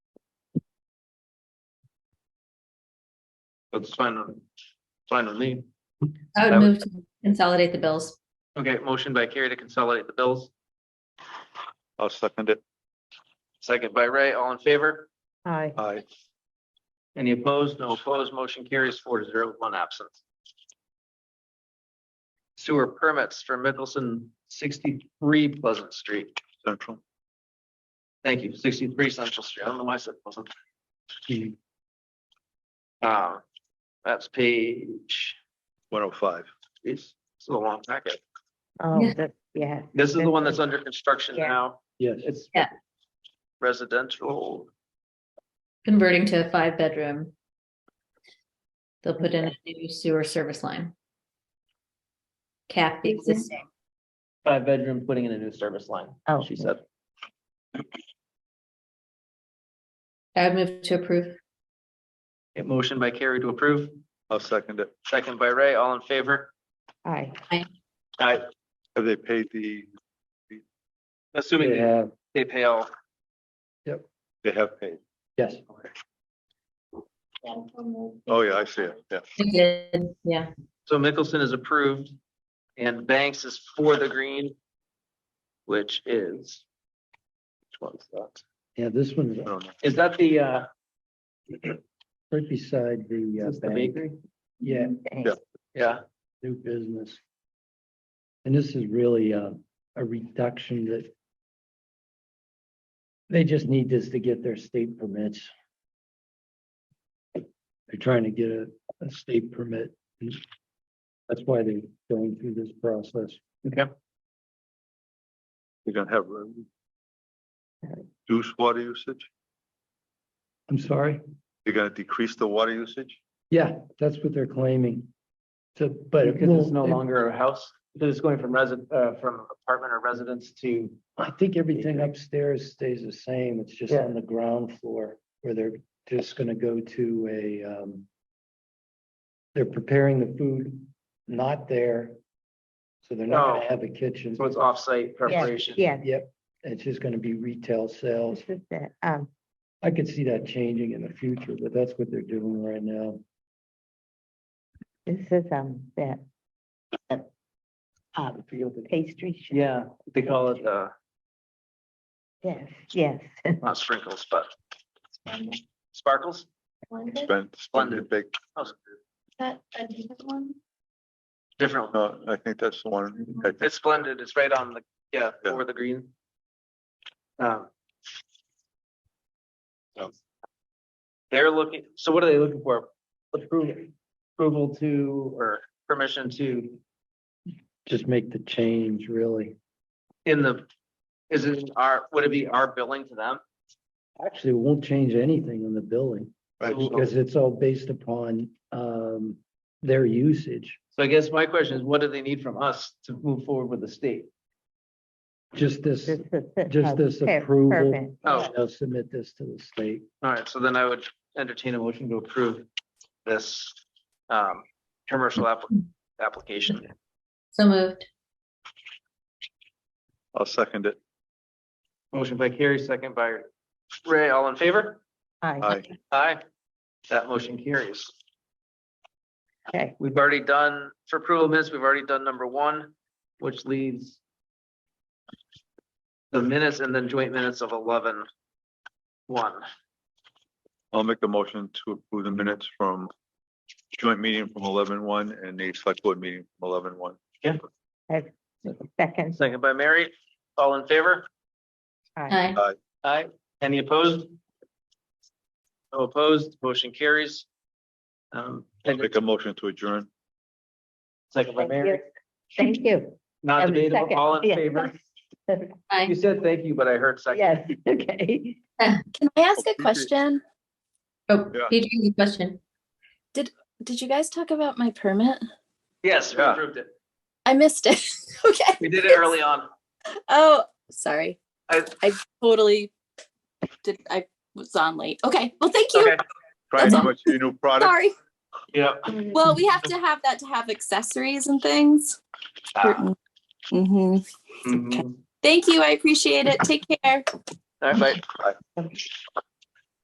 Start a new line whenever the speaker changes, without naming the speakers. That's fine, on- fine with me.
I
That would-
would move to consolidate the bills.
Okay, motion by Carrie to consolidate the bills,
I'll second it.
second by Ray, all in favor?
Aye.
Aye.
Any opposed? No opposed. Motion carries four to zero with one absent. Sewer permits for Mickelson sixty-three Pleasant Street.
Central.
Thank you, sixty-three Central Street. I don't know why I said Pleasant. Uh, that's page,
One oh five.
geez, it's a long packet.
Oh,
Yeah.
that, yeah.
This is the one that's under construction
Yeah.
now.
Yes.
It's
Yeah.
residential.
Converting to a five bedroom. They'll put in a new sewer service line. Cap the existing.
Five bedroom, putting in a new service line,
Oh.
she said.
I would move to approve.
A motion by Carrie to approve,
I'll second it.
second by Ray, all in favor?
Aye.
Aye.
Have they paid the,
Assuming they- they pay all
they have paid?
Yes.
Oh, yeah, I see it. Yeah.
Yeah,
So Mickelson is approved and Banks is for the green, which is. Which one's that?
Yeah, this one's
I don't know.
Is that the, uh,
right beside the. uh,
is the
bank.
bakery?
Yeah,
Thanks.
Yeah,
new business. And this is really a, a reduction that they just need this to get their state permits. They're trying to get a, a state permit. That's why they're going through this process.
okay.
You're gonna have um, reduce water usage?
I'm sorry.
You're gonna decrease the water usage?
Yeah, that's what they're claiming. To, but it
Because it's no
will-
longer a house, because it's going from resident, uh, from apartment or residence to.
I think everything upstairs stays the same. It's just on the ground floor where they're just gonna go to a, um, they're preparing the food, not there. So they're not
No.
gonna have a kitchen.
So it's offsite
Yeah,
preparation.
yeah,
Yep, it's just gonna be retail sales.
this is it. Um,
I could see that changing in the future, but that's what they're doing right now.
this is, um, that. uh, Um, pastry. shop.
Yeah, they call it, uh,
Yes, yes.
not sprinkles, but sparkles.
Spend, spend it big.
That was a
That a different one?
Different, one.
No, I think that's the one. I think-
it's splendid, it's right on the, yeah,
Yeah.
over the green. Um,
um,
They're looking, so what are they looking for? Approval, approval to, or permission to,
Just make the change, really.
in the, is it our, would it be our billing to them?
Actually, it won't change anything in the building.
I just-
Because it's all based upon um their usage,
So I guess my question is, what do they need from us to move forward with the state?
just this,
This is it,
just
um,
this
per-
approval.
permit.
Oh.
they'll submit this to the state.
All right, so then I would entertain a motion to approve this um commercial app- application.
so moved.
I'll second it.
Motion by Carrie, second by Ray, all in favor?
Aye,
Aye.
Aye. That motion carries.
okay,
We've already done, for approval minutes, we've already done number one, which leaves the minutes and then joint minutes of eleven one.
I'll make a motion to approve the minutes from joint meeting from eleven one and the select board meeting from eleven one.
second,
Second by Mary, all in favor?
aye,
Aye.
Aye. Any opposed? No opposed, motion carries. Um,
I'll make a motion to adjourn.
second by
thank
Mary,
you. Thank you.
not
Um,
debatable,
second,
all in
yeah.
favor? You
Aye.
said thank you, but I heard second.
Yes, okay.
Can I ask
Okay.
a question?
Oh,
Yeah.
BJ, your question.
Did you guys talk about my permit?
Yes, we
Yeah.
approved it.
I missed it. Okay.
We did it early on.
Oh, sorry.
I-
I totally did. I was on late. Okay. Well, thank you.
Okay,
Try
That's
to
all.
much your new product.
Sorry.
yeah.
Well, we have to have that to have accessories and things.
Ah.
hmm
Mhm.
Thank you. I appreciate it. Take care.
All right, bye.